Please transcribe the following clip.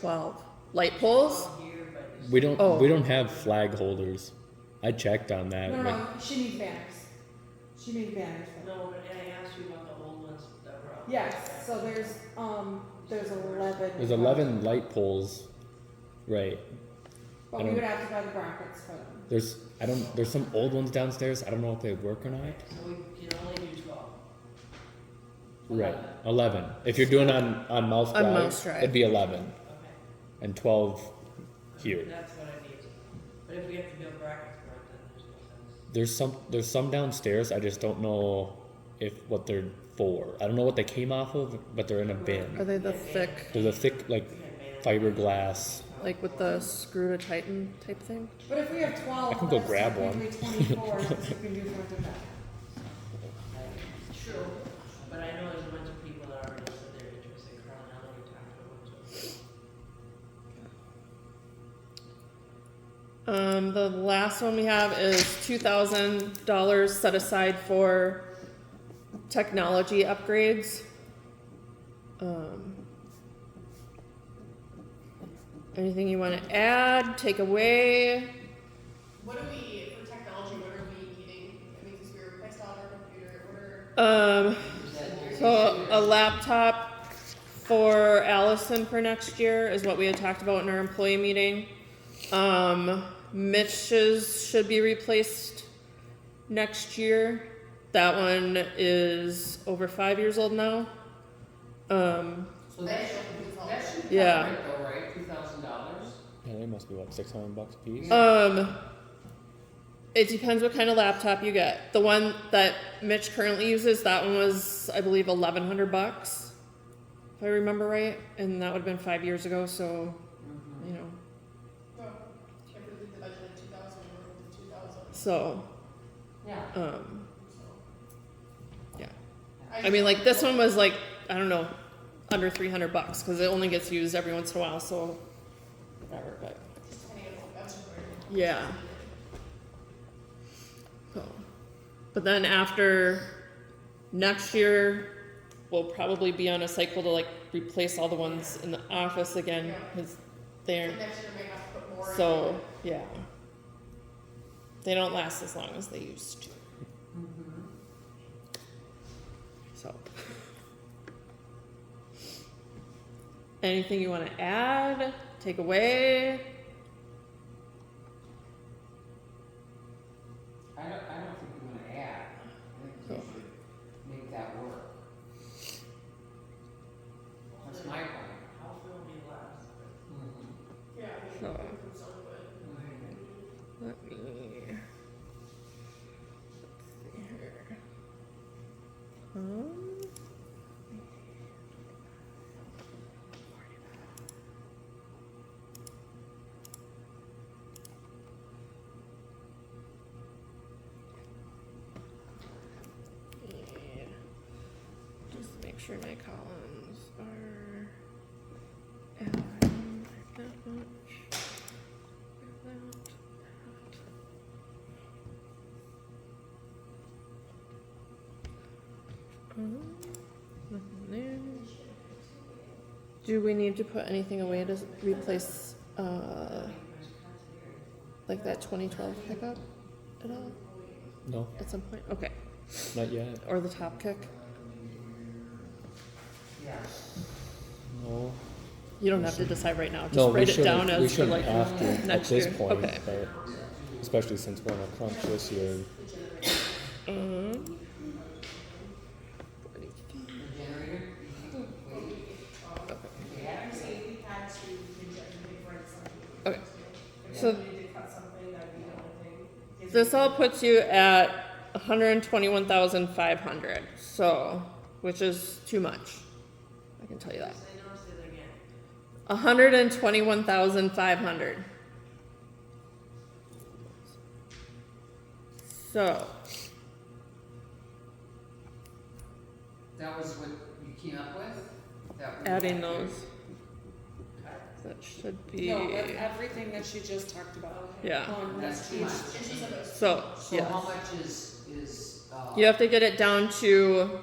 Twelve. Light poles? We don't Oh. we don't have flag holders. I checked on that. No, like, no, she means banners. She means banners. for- No, but I asked you about the old ones that were out. there. Yes, so there's, um, there's eleven. There's 11 light poles. Right. But we would have to buy the brackets for them. There's I don't there's some old ones downstairs. I don't know if they work or not. So we can only do twelve. Right. 11. If you're doing on on mouse On drive, mouse drive. it'd be 11 Okay. and 12 here. That's what I need. But if we have to build brackets for it, then there's no sense. There's some there's some downstairs. I just don't know if what they're for. I don't know what they came off of, but they're in a Are bin. they the thick, There's a thick like We can ban. fiberglass. like with the screw to tighten type thing? But if we have twelve. I can go that's grab technically Twenty-four, since we can do front to back. True, but I know there's a bunch of people that already said they're interested, Carl and I already talked to a bunch of them. Um, the last one we have is two thousand dollars set aside for technology upgrades. Um, anything you want to add, take away? What are we, for technology, what are we needing? I mean, because we replaced all of our computer, what are, Um, You said yours. So a laptop for Allison for next year is what we had talked about in our employee meeting. Um, Mitch's should be replaced next year. That one is over five years old now. Um, So that should, that should cover Yeah. it though, right? Two thousand dollars? Yeah, they must be what 600 bucks a piece. um, it depends what kind of laptop you get. The one that Mitch currently uses, that one was, I believe, eleven hundred bucks, if I remember right, and that would have been five years ago. So, you know, well, if we leave the budget at two thousand, we're over two thousand, So, Yeah. um, so. Yeah. I I mean, like this one was like I don't know, under three hundred bucks because it only gets used every once in a while. So, whatever. But Just depending on what budget we're. yeah. So, but then after next year, we'll probably be on a cycle to like replace all the ones in the office again because So they're Next year we have to put more. in. so yeah. They don't last as long as they used to. So. Anything you want to add, take away? I don't, I don't think we wanna add. I think we Cool. should make that work. That's my point. Mm-hmm. How will be last? Yeah, I mean, So. it's so good. Let me. let's see here. Um, yeah, Just make sure my columns are aligned like that much. Do we need to put anything away to replace, uh, like that twenty twelve pickup at all, No, at some point? Okay, not yet. or the top kick? Yeah. No. You don't have to decide right now, No, just we write it down shouldn't- we as for shouldn't like have to next at year. this point, Okay. but especially since we're in a crunch this year. Um, The generator? Wait, Yeah, I'm saying we had to, we had to write something. Okay. If So- we needed to cut something, that'd be the only thing. Because This we- all puts you at 121,500, so, which is too much. I can tell you that. Say no, say it again. 121,500. So, That was what you came up with? That we adding had to- those. That should be, No, that's everything that she just talked about. Um, yeah. On That's too page- much. And she said it was So, So yeah. how much is, is, uh? You have to get it down to